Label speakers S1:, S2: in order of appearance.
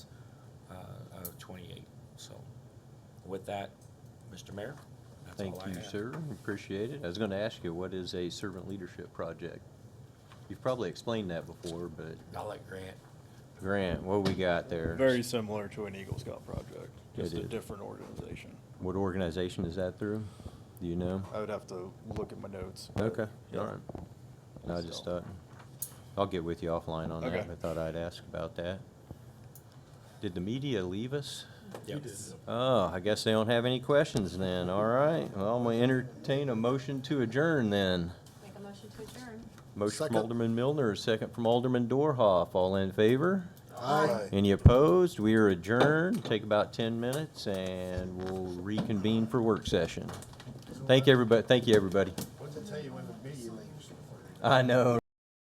S1: uh, twenty-eight, so. With that, Mr. Mayor, that's all
S2: Thank
S1: I have.
S2: you, sir. Appreciate it. I was going to ask you, what is a servant leadership project? You've probably explained that before, but
S1: I'll let Grant,
S2: Grant, what we got there?
S3: Very similar to an Eagle Scout project, just
S2: It
S3: a
S2: is.
S3: different organization.
S2: What organization is that through? Do you know?
S3: I would have to look at my notes. but-
S2: Okay,
S3: Yeah.
S2: all right. No, I just
S3: So-
S2: thought, I'll get with you offline on that,
S3: Okay.
S2: but thought I'd ask about that. Did the media leave us?
S1: Yep.
S2: Oh, I guess they don't have any questions then. All right. Well, I'm going to entertain a motion to adjourn then.
S4: Make a motion to adjourn.
S2: Motion from
S5: Second.
S2: Alderman Milner, second from Alderman Dorhoff. All in favor?
S5: Aye.
S2: Any opposed? We are adjourned. Take about 10 minutes and we'll reconvene for work session. Thank everybody, thank you, everybody.
S5: What to tell you when the media leaves?
S2: I know.